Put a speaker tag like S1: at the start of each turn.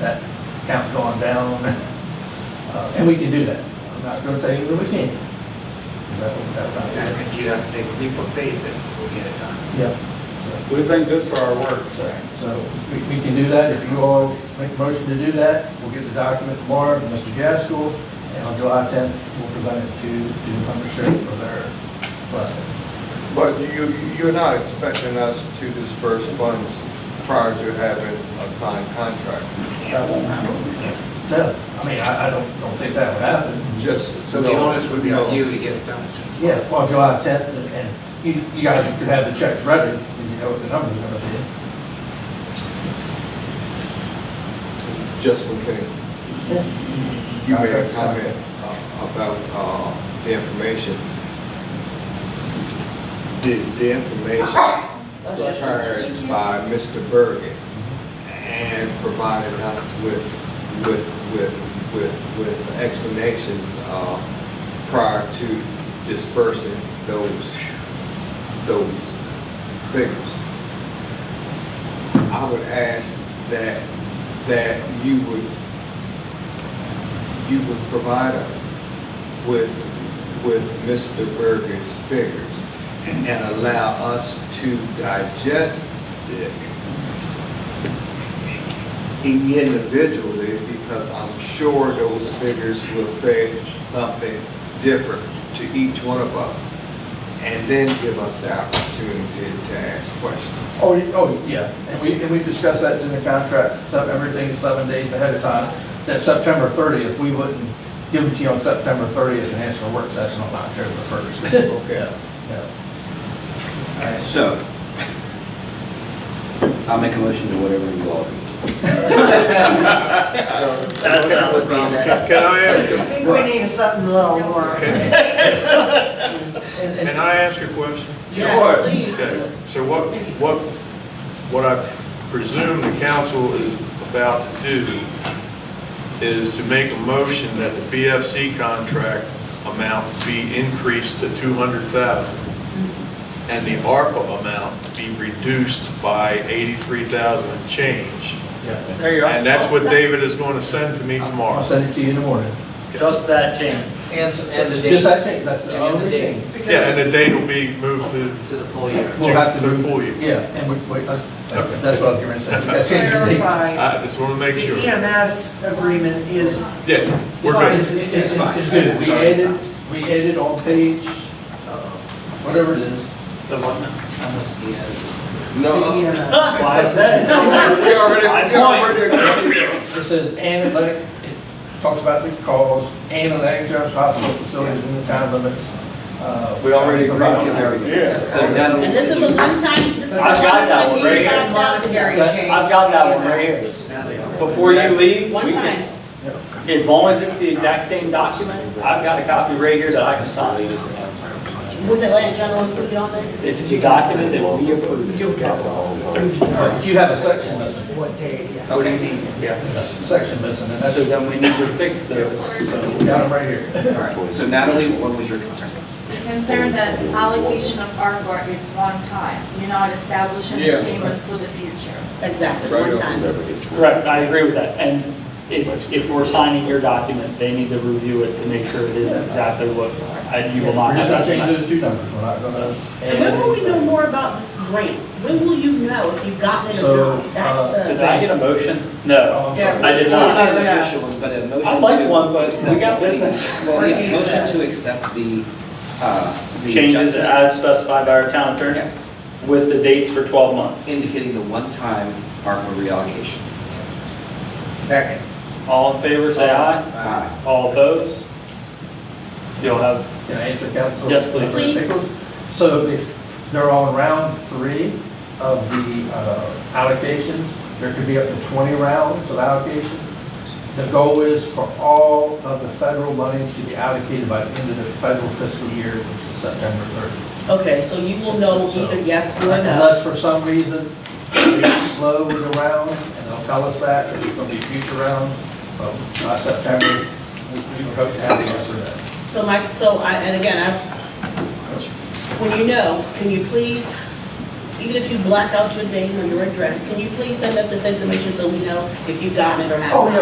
S1: that count going down. Uh, And we can do that. I'm not going to say that we can't. That would- that would
S2: I
S1: not-
S2: think you'd have to take a leap of faith that we'll get it done.
S1: Yeah.
S3: We've been good for our work.
S1: So- So we we can do that. If you all make a motion to do that, we'll get the document tomorrow to Mr. Gaskell. And on July 10th, we'll present it to, to Hunter Sheriff for their blessing.
S4: But you, you're not expecting us to disperse funds prior to having a signed contract?
S1: That won't happen. No, I mean, I, I don't, don't think that would happen.
S4: Just.
S2: So the onus would be
S4: No.
S2: on you to get it done as soon as possible.
S1: Yes, on July 10th, and- and you, you guys could have the checks ready, because you know what the number's going to be.
S4: Just one thing. You made a comment uh, about uh, the information. The, the information prepared by Mr. Bergen and provided us with, with, with, with, with explanations uh, prior to dispersing those, those figures. I would ask that, that you would, you would provide us with, with Mr. Berger's figures and allow us to digest it individually, because I'm sure those figures will say something different to each one of us. And then give us the opportunity to ask questions.
S1: Oh, y- oh, yeah, and we, and we discussed that in the contract, so everything is seven days ahead of time. That September thirtieth, we wouldn't give it to you on September thirtieth and ask for a work session on October first.
S4: Okay.
S5: All right, so, I'll make a motion to whatever you all agree.
S2: That sounds wrong.
S3: Can I ask,
S6: I think we need something a little more.
S3: can I ask a question?
S6: Yes, please.
S3: Okay, so what, what, what I presume the council is about to do is to make a motion that the BFC contract amount be increased to two hundred thousand and the ARPA amount be reduced by eighty-three thousand and change.
S1: Yeah.
S7: There you
S3: And
S7: are.
S3: that's what David is going to send to me
S1: I'll
S3: tomorrow.
S1: send it to you in the morning.
S7: Just that change.
S2: And, and the
S1: Just
S2: date
S1: that change, that's the
S2: And the
S1: only
S2: date.
S1: change.
S3: Yeah, and the date will be moved to
S2: to the full year.
S1: We'll have to
S3: To
S1: move-
S3: fool you.
S1: Yeah, and we, we, uh,
S3: Okay.
S1: that's what I was gonna say. That changes the date.
S6: Clarify,
S3: I just want to
S6: the
S3: make sure.
S6: EMS agreement is,
S3: Yeah, we're
S6: Fine.
S3: good.
S1: It's, it's, it's it's good, we added, we added on page, uh, whatever it is.
S2: How much do you have?
S6: the
S8: uh,
S4: No,
S6: EMS.
S7: Why is that?
S4: we already, we already.
S1: It says, and elect, it talks about the cause, and elect jobs, hospital facilities in the time limits. uh,
S5: We already agreed on
S1: provided.
S5: everything. So now,
S8: And this is a one-time, this is a
S7: I've got that one
S8: one-time
S7: right
S8: use
S7: here.
S8: of monetary
S1: That-
S8: change.
S7: I've got that one right here. Before you leave,
S8: One
S7: we
S8: time.
S7: can, as long as it's the exact same document, I've got a copy right here that I can sign.
S8: Was Atlanta General included on there?
S7: It's the document that we approved.
S6: You'll get
S1: But you have a section missing,
S6: what day, yeah.
S7: Okay.
S1: section missing, and that's,
S7: So then we need to fix those. So
S1: we got them right here.
S5: so Natalie, what was your concern?
S9: concerned that allocation of ARPA is one time, you're not establishing
S4: Yeah.
S9: a payment for the future.
S8: Exactly, one time.
S7: Correct, I agree with that. And if, if we're signing your document, they need to review it to make sure it is exactly what, I- you will
S1: We're
S7: not
S1: just
S7: have
S1: gonna change
S7: that.
S1: those two numbers, we're not gonna.
S8: And when will we know more about this grant? When will you know if you've gotten it or
S1: So,
S8: not? That's
S1: uh,
S7: Did
S8: the,
S7: I get a motion? No.
S1: Oh, I'm sorry.
S8: Yeah.
S7: I did not.
S5: Not an official one, but a motion to.
S7: I'd like one, but we
S5: accept
S7: got
S5: the-
S7: business.
S5: Well, yeah,
S6: Like you
S5: motion
S6: said.
S5: to accept the, uh, the
S7: Changes as
S5: adjustments.
S7: specified by our town attorney
S5: Yes,
S7: with the dates for 12 months.
S5: indicating the one-time ARPA reallocation.
S2: Second.
S7: All in favor, say aye.
S5: Aye.
S7: All opposed? You'll have,
S1: Can I answer, Council?
S7: Yes, please.
S8: Please.
S1: So if they're on round three of the uh, allocations, there could be up to 20 rounds of allocations. The goal is for all of the federal money to be allocated by the end of the federal fiscal year, which is September 30th.
S8: okay, so you will know
S1: So-
S8: either yes or no.
S1: Unless for some reason we slow with the rounds, and they'll tell us that, there's going to be future rounds, but by September, we we would hope to have the yes or no.
S8: So my, so I, and again, I, when you know, can you please even if you black out your name or your address, can you please send us this information so we know if you've gotten it or haven't?
S1: Oh, yeah,